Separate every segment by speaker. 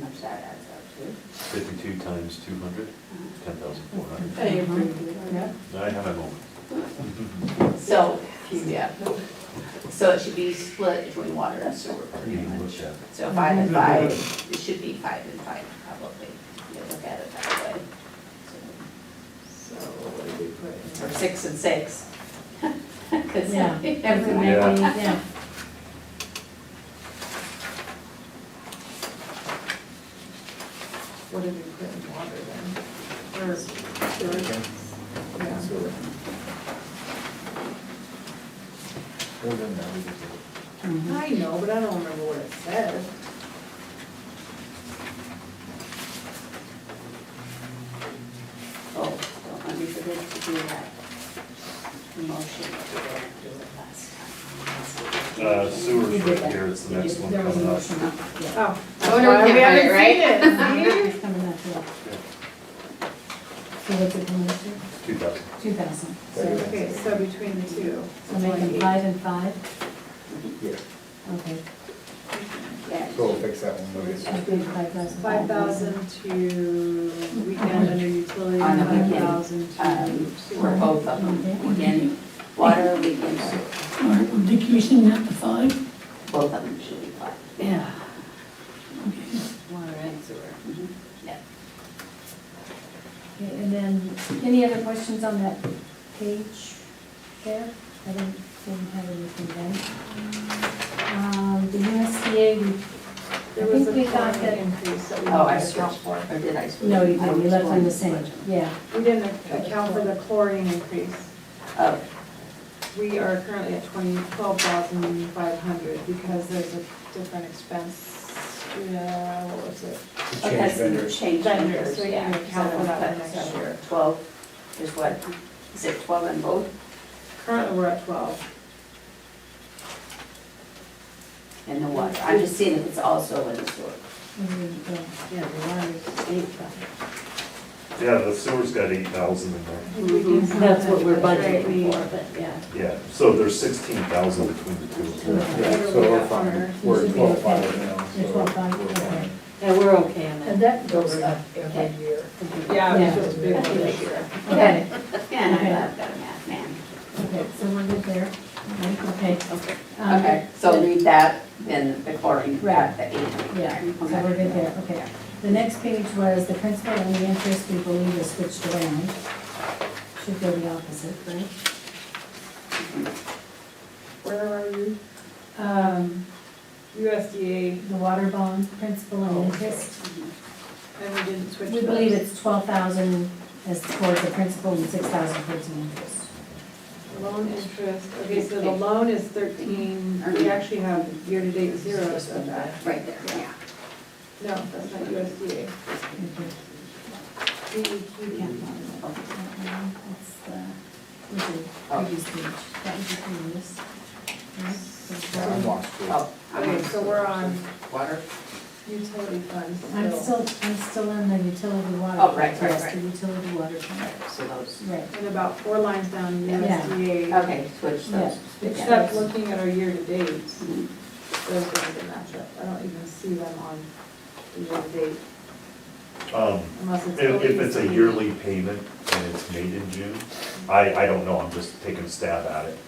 Speaker 1: much that adds up to.
Speaker 2: Fifty-two times two hundred, ten thousand four hundred.
Speaker 3: Hey, yeah.
Speaker 2: I have my moment.
Speaker 1: So, yeah. So it should be split between water and sewer pretty
Speaker 2: Getting
Speaker 1: much.
Speaker 2: looked at.
Speaker 1: So five and
Speaker 3: Mm-hmm.
Speaker 1: five, it should be five and five probably, if you look at it that way. So what did we put? Or six and six. Because
Speaker 3: Yeah.
Speaker 1: everyone.
Speaker 2: Yeah.
Speaker 3: Yeah.
Speaker 1: What did we put in water then?
Speaker 4: So, Well, then that would be good.
Speaker 1: I know, but I don't remember what it said. Oh, don't let me forget to do that. Motion that we didn't do it last time.
Speaker 2: Uh, sewer's
Speaker 3: You did
Speaker 2: right
Speaker 3: that.
Speaker 2: here, it's the
Speaker 3: You
Speaker 2: next
Speaker 3: did-
Speaker 2: one
Speaker 3: There was a
Speaker 2: coming up.
Speaker 3: motion up, yeah.
Speaker 1: Oh,
Speaker 5: I wonder if we can't find it,
Speaker 3: It's coming up, yeah. So what's it coming up to?
Speaker 2: Two thousand.
Speaker 3: Two thousand.
Speaker 4: Thirty.
Speaker 3: So
Speaker 5: Okay, so between the two.
Speaker 3: so make them five and five,
Speaker 4: Yeah,
Speaker 3: okay.
Speaker 1: Yeah.
Speaker 4: so we'll fix that one. we'll
Speaker 3: So
Speaker 4: get-
Speaker 3: big five thousand.
Speaker 5: Five thousand to weekend under utility,
Speaker 1: On the
Speaker 5: five
Speaker 1: weekend,
Speaker 5: thousand to.
Speaker 1: Um, for both of them, again, water, we can,
Speaker 6: Are we decreasing that to five?
Speaker 1: both of them should be five.
Speaker 6: Yeah.
Speaker 1: Water and sewer. Mm-hmm. Yeah.
Speaker 3: Okay, And then, any other questions on that page there? I didn't, didn't have anything then. Um, the USDA, we,
Speaker 5: There
Speaker 3: I
Speaker 5: was
Speaker 3: think
Speaker 5: a
Speaker 3: we got
Speaker 5: foreign
Speaker 3: that-
Speaker 5: Increase that we.
Speaker 1: Oh, I
Speaker 5: didn't account
Speaker 1: switched, or did I switch?
Speaker 3: no, you
Speaker 1: I
Speaker 3: didn't, you
Speaker 1: was
Speaker 3: left
Speaker 1: going to
Speaker 3: them the same,
Speaker 1: switch them.
Speaker 3: yeah.
Speaker 5: for. We didn't account for the chlorine increase.
Speaker 1: Oh,
Speaker 5: We are currently at twenty, twelve thousand five hundred because there's a different expense, yeah, what was it?
Speaker 4: to
Speaker 1: okay,
Speaker 4: Change
Speaker 1: so you
Speaker 4: vendors.
Speaker 1: changed
Speaker 5: Vendors,
Speaker 1: vendors,
Speaker 5: so you
Speaker 1: yeah.
Speaker 5: can account for that
Speaker 1: So,
Speaker 5: next year.
Speaker 1: Twelve is what, is it twelve in both?
Speaker 5: Currently, we're at twelve.
Speaker 1: And the water, I'm just seeing if it's also in the sewer.
Speaker 3: Mhm, yeah.
Speaker 5: Yeah, the water is eight thousand.
Speaker 2: Yeah, the sewer's got eight thousand in there.
Speaker 5: Mm-hmm.
Speaker 3: That's what we're
Speaker 5: Right, we-
Speaker 3: budgeting for, but yeah.
Speaker 2: Yeah, so there's sixteen thousand between the two of them.
Speaker 4: Yeah, so we're fine, we're
Speaker 3: Should
Speaker 4: at
Speaker 3: be
Speaker 4: twelve
Speaker 3: okay.
Speaker 4: five now, so.
Speaker 3: You're twelve five,
Speaker 4: we're
Speaker 3: okay.
Speaker 4: fine.
Speaker 3: Yeah, we're okay on
Speaker 7: And that goes up
Speaker 1: Okay.
Speaker 7: every year.
Speaker 5: Yeah,
Speaker 3: Yeah.
Speaker 5: it was just a big one this year.
Speaker 3: Okay,
Speaker 1: Yeah, I've got a math man.
Speaker 3: okay, so we're good there, right, okay.
Speaker 1: Okay.
Speaker 3: Um,
Speaker 1: Okay, so leave that in the chlorine,
Speaker 3: Right.
Speaker 1: at the eight.
Speaker 3: Yeah, so we're good there, okay. The next page was the principal and the interest we believe is switched around. Should go the opposite, right?
Speaker 5: Where are you?
Speaker 3: Um,
Speaker 5: USDA,
Speaker 3: the water bond, principal
Speaker 1: Oh,
Speaker 3: and interest,
Speaker 5: and we didn't switch
Speaker 3: we
Speaker 5: those.
Speaker 3: believe it's twelve thousand as towards the principal and six thousand towards the interest.
Speaker 5: Loan interest, okay, so the loan is thirteen, we actually have year-to-date zeros of that.
Speaker 1: Right there, yeah.
Speaker 5: No, that's not USDA.
Speaker 1: Mm-hmm.
Speaker 3: Okay.
Speaker 5: We, we can't.
Speaker 1: Okay.
Speaker 3: That's the, we do,
Speaker 1: Oh.
Speaker 3: previous page, that was the previous. Right, so-
Speaker 4: Yeah, I'm lost. too.
Speaker 1: Oh,
Speaker 5: Okay, so we're on
Speaker 1: water.
Speaker 5: utility funds.
Speaker 3: I'm
Speaker 5: so-
Speaker 3: still, I'm still in the utility water.
Speaker 1: Oh, right, right,
Speaker 3: Yes,
Speaker 1: right.
Speaker 3: The utility water fund,
Speaker 1: So those,
Speaker 3: right.
Speaker 5: And about four lines down,
Speaker 1: Yeah.
Speaker 5: USDA,
Speaker 1: okay, switch
Speaker 3: Yeah.
Speaker 1: those.
Speaker 5: except looking at our year-to-dates,
Speaker 1: Mhm.
Speaker 5: those don't even match up. I don't even see them on the year-to-date
Speaker 2: Um,
Speaker 5: unless it's.
Speaker 2: if, if it's a
Speaker 5: OECD.
Speaker 2: yearly payment and it's made in June, I, I don't know, I'm just taking a stab at it.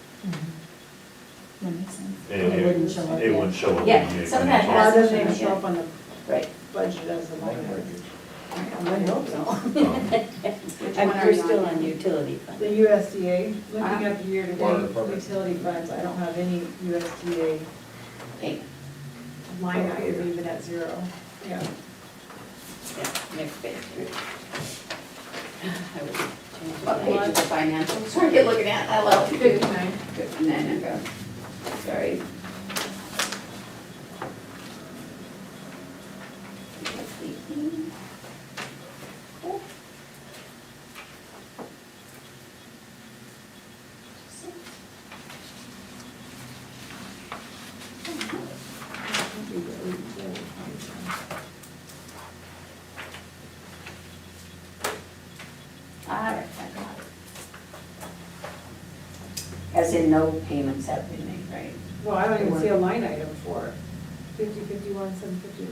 Speaker 3: That makes sense.
Speaker 2: And
Speaker 3: It wouldn't show up
Speaker 2: It
Speaker 3: yet.
Speaker 2: wouldn't show up.
Speaker 1: Yeah,
Speaker 2: in the-
Speaker 1: some of that
Speaker 5: Why
Speaker 1: has-
Speaker 5: doesn't it show up on the
Speaker 1: Right.
Speaker 5: budget as a
Speaker 4: Mine
Speaker 5: line
Speaker 4: might
Speaker 5: item?
Speaker 4: be-
Speaker 5: I would hope so.
Speaker 2: Um,
Speaker 1: Which one
Speaker 7: And
Speaker 1: are
Speaker 7: we're
Speaker 1: you on?
Speaker 7: still on utility
Speaker 5: The
Speaker 7: fund.
Speaker 5: USDA, looking
Speaker 1: Uh-huh.
Speaker 5: at the
Speaker 4: Water
Speaker 5: year-to-date
Speaker 4: Department.
Speaker 5: utility funds, I don't have any USDA
Speaker 1: Eight.
Speaker 5: line item even at zero. Yeah.
Speaker 1: Yeah, next page. I would change What page of the financials are you looking at? I love it.
Speaker 5: Fifty-nine.
Speaker 1: Fifty-nine, okay. Sorry. All right, I got it. As in, no payments have been made, right?
Speaker 5: Well, I don't even see a line item for it. fifty, fifty-one, seven fifty.